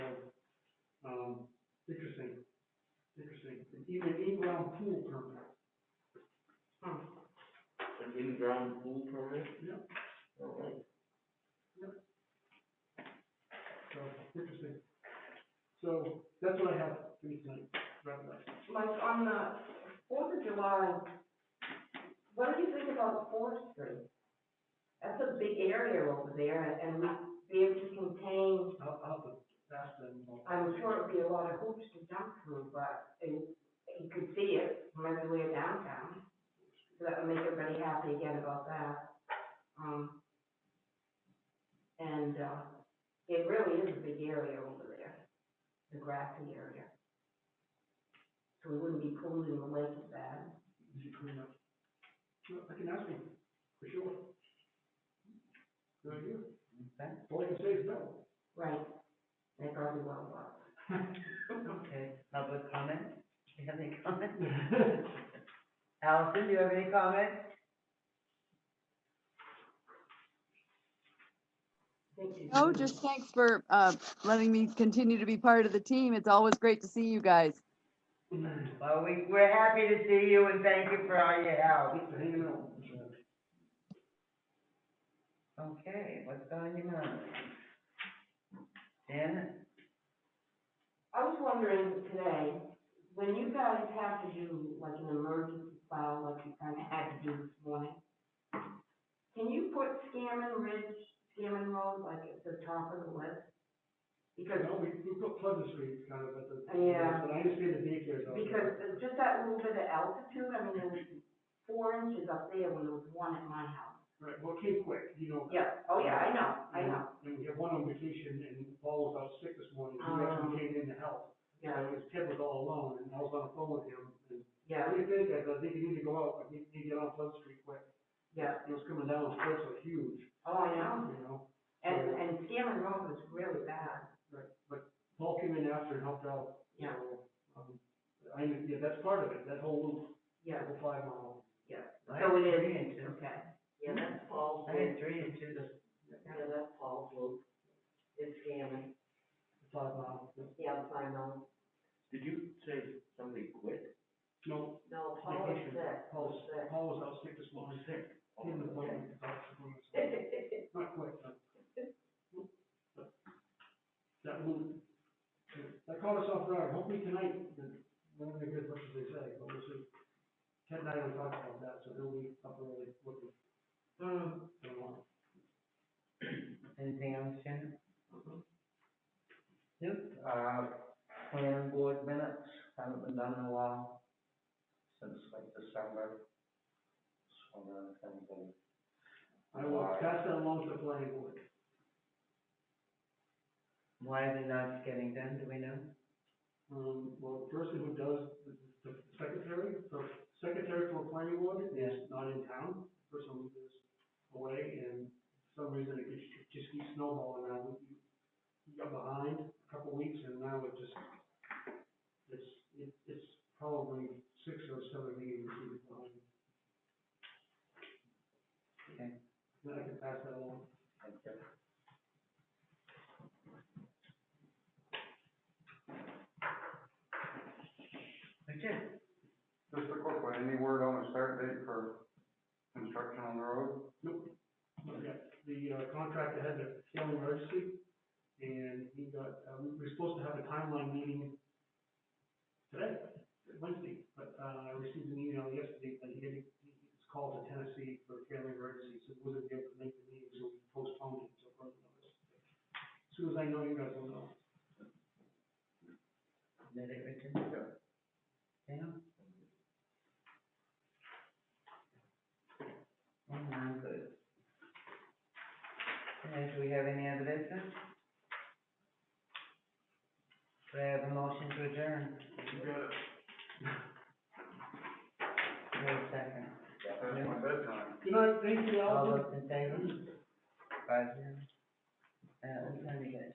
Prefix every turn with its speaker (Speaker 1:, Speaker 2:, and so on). Speaker 1: Um, in an in-ground pool permit. Huh,
Speaker 2: An in-ground pool permit?
Speaker 1: Yep.
Speaker 2: All right.
Speaker 1: so, interesting. So, that's what I have for you tonight, wrap it up.
Speaker 3: Like on the Fourth of July, what do you think about Fourth Street? That's a big area over there and we be able to contain,
Speaker 1: I'll, I'll have to ask them.
Speaker 3: I'm sure it'd be a lot of hoops to jump through, but you, you could see it from everywhere downtown. So that would make everybody happy again about that. Um, and, uh, it really is a big area over there, the grassy area. So we wouldn't be polluting the lake as bad.
Speaker 1: Did you clean up? Well, I can ask him, for sure. Good idea. All I can say is no.
Speaker 3: Right, that probably won't work.
Speaker 4: Okay, public comment? Do you have any comment? Allison, do you have any comment?
Speaker 3: Thank you.
Speaker 5: No, just thanks for uh, letting me continue to be part of the team. It's always great to see you guys.
Speaker 4: Well, we, we're happy to see you and thank you for all your help.
Speaker 1: Thanks for hanging out.
Speaker 4: Okay, what's on your mind? Janet?
Speaker 3: I was wondering today, when you guys have to do like an emergency file, like you kind of had to do this morning, can you put Scammon Ridge, Scammon Road, like at the top of the list? Because,
Speaker 1: No, we, we put Pleasant Street kind of at the.
Speaker 3: Yeah.
Speaker 1: But I understand the daycare's out
Speaker 3: because
Speaker 1: there.
Speaker 3: just that little bit of altitude, I mean, it was four inches up there when it was one at my house.
Speaker 1: Right, well, it came quick, you know.
Speaker 3: Yeah, oh yeah, I know, I know,
Speaker 1: And we had one on vacation and Paul was out sick this morning, he actually
Speaker 3: Um.
Speaker 1: came in to help.
Speaker 3: yeah,
Speaker 1: And his kid was all alone and I was on the phone with him and,
Speaker 3: yeah,
Speaker 1: what do you think? I said, I think you need to go out, I need, need to get on Pleasant Street quick.
Speaker 3: yeah,
Speaker 1: It was coming down, the cliffs are huge,
Speaker 3: oh, I know.
Speaker 1: you know?
Speaker 3: And, and Scammon Road was really bad,
Speaker 1: Right, but Paul came in after and helped out.
Speaker 3: Yeah.
Speaker 1: So, um, I, mean, yeah, that's part of it, that whole loop,
Speaker 3: yeah,
Speaker 1: that whole five mile.
Speaker 3: yeah.
Speaker 4: I
Speaker 3: So it
Speaker 4: had
Speaker 3: is,
Speaker 4: three and two.
Speaker 3: okay,
Speaker 2: Yeah, that's Paul's
Speaker 4: I
Speaker 2: loop.
Speaker 4: had three and two, this-
Speaker 2: Yeah, that's Paul's loop. It's scamming.
Speaker 1: Five mile. yeah.
Speaker 2: Yeah, I know. Did you say somebody quit?
Speaker 1: No,
Speaker 2: No,
Speaker 1: Paul was sick. Paul,
Speaker 2: Paul's sick.
Speaker 1: Paul was out sick this morning, sick, in the plane, doctor from the- not quite, but. but That loop, that caught us off guard, hopefully tonight, the- we're gonna get as much as they say, but we'll see. Ted and I were talking about that, so he'll be up early, looking,
Speaker 3: Mm.
Speaker 1: don't want.
Speaker 4: anything else, Janet? Nope, uh, planning board minutes, haven't been done in a while, since like December. Just wondering if anybody.
Speaker 1: I will
Speaker 4: Why?
Speaker 1: pass that along to the planning board.
Speaker 4: Why are they not getting done, do we know?
Speaker 1: Um, well, the person who does, the, the secretary, the secretary for planning board is not in town, the person who is away, and for some reason it just, it just keeps snowballing now. We- We got behind a couple weeks, and now it just, it's, it, it's probably six or seven meetings we've been behind.
Speaker 4: Okay.
Speaker 1: Then I can pass that along.
Speaker 4: Thank you. Okay.
Speaker 6: Just a quick one, any word on a start date for construction on the road?
Speaker 1: Nope, not yet. The uh, contractor had a family emergency, and he got, uh, we were supposed to have a timeline meeting today, Wednesday, but, uh, I received an email yesterday that he had, he was called to Tennessee for a family emergency, so wasn't able to make the meeting, so we postponed it until further notice. As Soon as I know, you guys will know.
Speaker 4: Did it return? Yeah. Oh, my good. And do we have any other business? Do I have a motion to adjourn?
Speaker 1: You got it.
Speaker 4: Wait a second.
Speaker 6: That's my bedtime.
Speaker 1: Good night, thank you,
Speaker 4: All
Speaker 1: Allison.
Speaker 4: those in favor? Five zero. Uh, we're trying to get